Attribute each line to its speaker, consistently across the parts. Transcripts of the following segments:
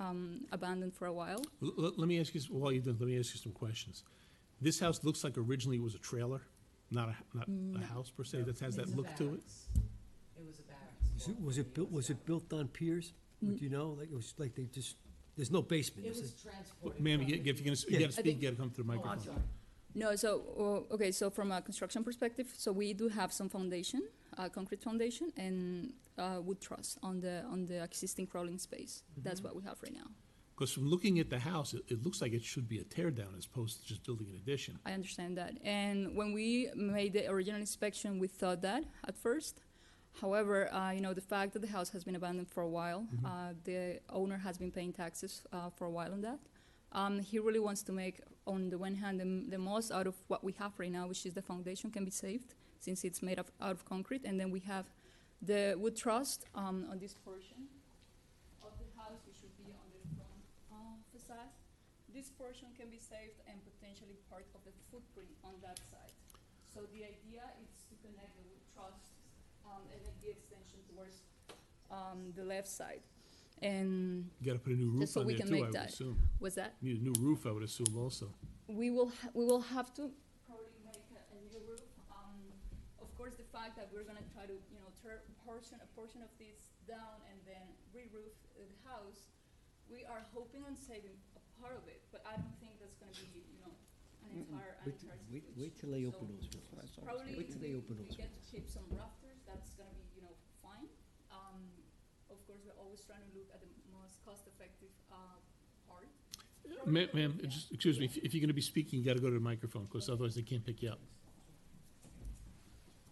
Speaker 1: um, abandoned for a while.
Speaker 2: L- l- Let me ask you, s- while you're done, let me ask you some questions. This house looks like originally it was a trailer, not a, not
Speaker 1: No.
Speaker 2: a house per se, that has
Speaker 3: It's
Speaker 2: that
Speaker 3: a
Speaker 2: look to it?
Speaker 3: barracks. It was a barracks.
Speaker 4: Was it,
Speaker 3: for
Speaker 4: was
Speaker 3: a
Speaker 4: it built,
Speaker 3: years
Speaker 4: was it
Speaker 3: ago.
Speaker 4: built on piers? Would you know, like, it was like they just, there's no basement,
Speaker 3: It
Speaker 4: is
Speaker 3: was
Speaker 4: it?
Speaker 3: transported.
Speaker 2: Ma'am,
Speaker 3: from
Speaker 2: you
Speaker 3: the-
Speaker 2: get- if you're gonna, s- you
Speaker 4: Yeah.
Speaker 2: gotta
Speaker 1: I
Speaker 2: speak,
Speaker 1: think-
Speaker 2: you gotta come through the
Speaker 3: Oh, I'm
Speaker 2: microphone.
Speaker 3: sorry.
Speaker 1: No, so, uh, okay, so from a construction perspective, so we do have some foundation, uh, concrete foundation and uh, wood truss on the, on the existing crawling space. That's what we have right now.
Speaker 2: Because from looking at the house, it, it looks like it should be a tear down as opposed to just building an addition.
Speaker 1: I understand that. And when we made the original inspection, we thought that at first. However, uh, you know, the fact that the house has been abandoned for a while, uh, the owner has been paying taxes uh, for a while on that. Um, he really wants to make, on the one hand, the, the most out of what we have right now, which is the foundation can be saved since it's made of, out of concrete. And then we have the wood truss um, on this portion of the house, which would be on the front uh, facade. This portion can be saved and potentially part of the footprint on that side. So the idea is to connect the wood truss um, and make the extension towards um, the left side. And
Speaker 2: You gotta put a new
Speaker 1: Just
Speaker 2: roof
Speaker 1: so
Speaker 2: on
Speaker 1: we
Speaker 2: there
Speaker 1: can
Speaker 2: too, I
Speaker 1: make
Speaker 2: would
Speaker 1: that.
Speaker 2: assume.
Speaker 1: was that?
Speaker 2: Need a new roof, I would assume also.
Speaker 1: We will, ha- we will have to probably make a, a new roof. Um, of course, the fact that we're gonna try to, you know, tear portion, a portion of this down and then re-roof the house, we are hoping on saving a part of it, but I don't think that's gonna be, you know, an entire, an entire
Speaker 4: Wait,
Speaker 1: situation.
Speaker 4: wait, wait till they open
Speaker 1: So-
Speaker 4: those windows.
Speaker 1: Probably
Speaker 4: Wait till they
Speaker 1: we-
Speaker 4: open
Speaker 1: we
Speaker 4: those
Speaker 1: get
Speaker 4: windows.
Speaker 1: to keep some rafters, that's gonna be, you know, fine. Um, of course, we're always trying to look at the most cost-effective, uh, part.
Speaker 2: Ma'am, ma'am,
Speaker 1: Yeah.
Speaker 2: just, excuse me, if, if you're gonna be speaking, you gotta go to the microphone, because otherwise they can't pick you up.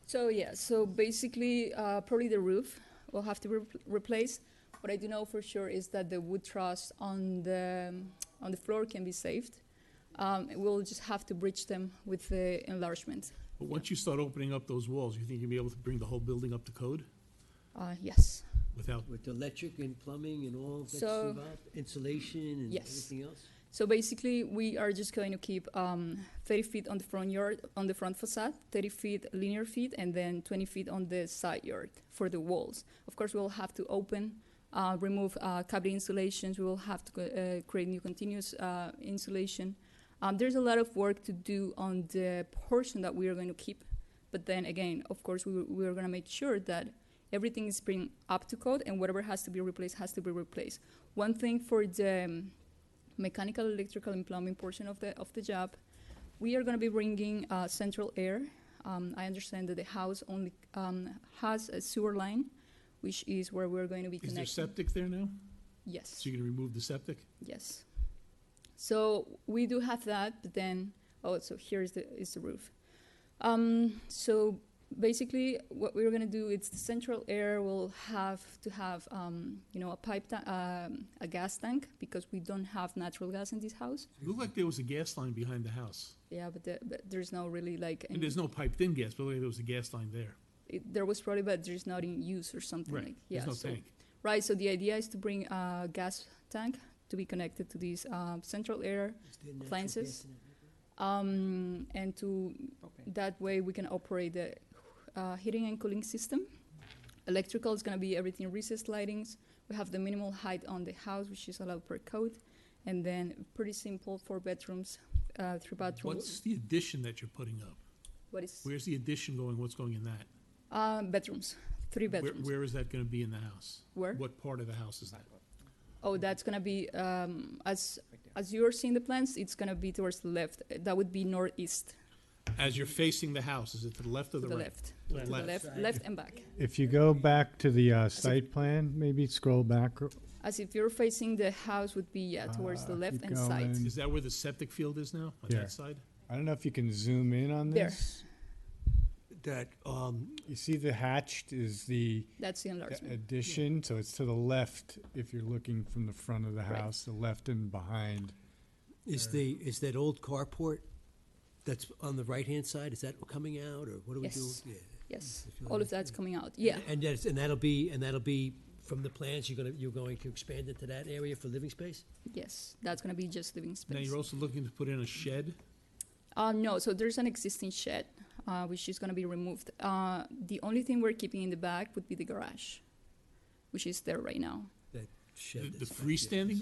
Speaker 1: So yeah, so basically, uh, probably the roof will have to be repl- replaced. What I do know for sure is that the wood truss on the on the floor can be saved. Um, we'll just have to bridge them with the enlargement.
Speaker 2: But once you start opening up those walls, you think you'll be able to bring the whole building up to code
Speaker 1: Uh, yes,
Speaker 2: without,
Speaker 4: With electric and plumbing and all that's
Speaker 1: So-
Speaker 4: involved, insulation and
Speaker 1: Yes.
Speaker 4: everything else?
Speaker 1: So basically, we are just going to keep um, 30 feet on the front yard, on the front facade, 30 feet linear feet, and then 20 feet on the side yard for the walls. Of course, we'll have to open, uh, remove uh, cavity insulations. We will have to co- uh, create new continuous uh, insulation. Um, there's a lot of work to do on the portion that we are going to keep, but then again, of course, we, we are going to make sure that everything is being up to code, and whatever has to be replaced has to be replaced. One thing for the um, mechanical, electrical, and plumbing portion of the of the job. We are going to be bringing uh, central air. Um, I understand that the house only um, has a sewer line, which is where we're going to be
Speaker 2: is there
Speaker 1: connecting.
Speaker 2: septic there now?
Speaker 1: yes,
Speaker 2: So you're gonna remove the septic?
Speaker 1: yes. So we do have that, but then oh, so here is the is the roof. Um, so basically, what we're going to do is the central air will have to have um, you know a pipe ta- um, a gas tank because we don't have natural gas in this house.
Speaker 2: It looked like there was a gas line behind the house.
Speaker 1: Yeah, but, the, but there's no really like.
Speaker 2: And there's
Speaker 1: any-
Speaker 2: no piped-in gas, but it looked like there was a gas line there.
Speaker 1: It, there was probably, but there's not in use or something
Speaker 2: Right,
Speaker 1: like. Yeah.
Speaker 2: There's no
Speaker 1: so,
Speaker 2: tank.
Speaker 1: Right. So the idea is to bring a gas tank to be connected to this uh, central air,
Speaker 4: Is there natural gas
Speaker 1: Appliances?
Speaker 4: in that?
Speaker 1: um, and to
Speaker 4: Propane.
Speaker 1: that way we can operate the uh, heating and cooling system. Electrical is going to be everything recessed lightings. We have the minimal height on the house, which is allowed per code, and then pretty simple four bedrooms, uh, three bathrooms.
Speaker 2: What's the addition that you're putting up?
Speaker 1: what is
Speaker 2: Where's the addition going? What's going in that?
Speaker 1: uh, bedrooms? Three
Speaker 2: Where-
Speaker 1: bedrooms.
Speaker 2: Where is that gonna be in the house?
Speaker 1: Where?
Speaker 2: What part of the house is that?
Speaker 1: Oh, that's gonna be, um, as, as you're seeing the plans, it's gonna be towards the left. Uh, That would be northeast,
Speaker 2: As you're facing the house, is it to the left
Speaker 1: to
Speaker 2: or the
Speaker 1: the
Speaker 2: right?
Speaker 1: left.
Speaker 2: To
Speaker 1: To the left, left and back.
Speaker 5: If you go back to the uh, site plan, maybe scroll back. or-
Speaker 1: As if you're facing the house would be, yeah, towards the
Speaker 5: Uh,
Speaker 1: left
Speaker 5: keep
Speaker 1: and side.
Speaker 5: going.
Speaker 2: Is that where the septic field is now, on
Speaker 5: Yeah.
Speaker 2: that side?
Speaker 5: I don't know if you can zoom in on
Speaker 1: There.
Speaker 5: this.
Speaker 4: That, um,
Speaker 5: You see the hatched is the
Speaker 1: That's the
Speaker 5: the
Speaker 1: enlargement.
Speaker 5: addition, so it's to the left if you're looking from the front of the
Speaker 1: Right.
Speaker 5: house, the left and behind.
Speaker 4: Is the, is that old carport that's on the right-hand side, is that coming out, or what do we do?
Speaker 1: Yes.
Speaker 4: Yeah.
Speaker 1: Yes,
Speaker 4: If you
Speaker 1: all
Speaker 4: like.
Speaker 1: of that's coming out, yeah.
Speaker 4: And that's, and that'll be, and that'll be, from the plans, you're gonna, you're going to expand into that area for living space?
Speaker 1: Yes, that's gonna be just living
Speaker 2: Now,
Speaker 1: space.
Speaker 2: you're also looking to put in a shed?
Speaker 1: Uh, no, so there's an existing shed, uh, which is gonna be removed. Uh, the only thing we're keeping in the back would be the garage, which is there right now.
Speaker 4: That
Speaker 2: The
Speaker 4: shed.
Speaker 2: the
Speaker 4: that's back there.
Speaker 2: freestanding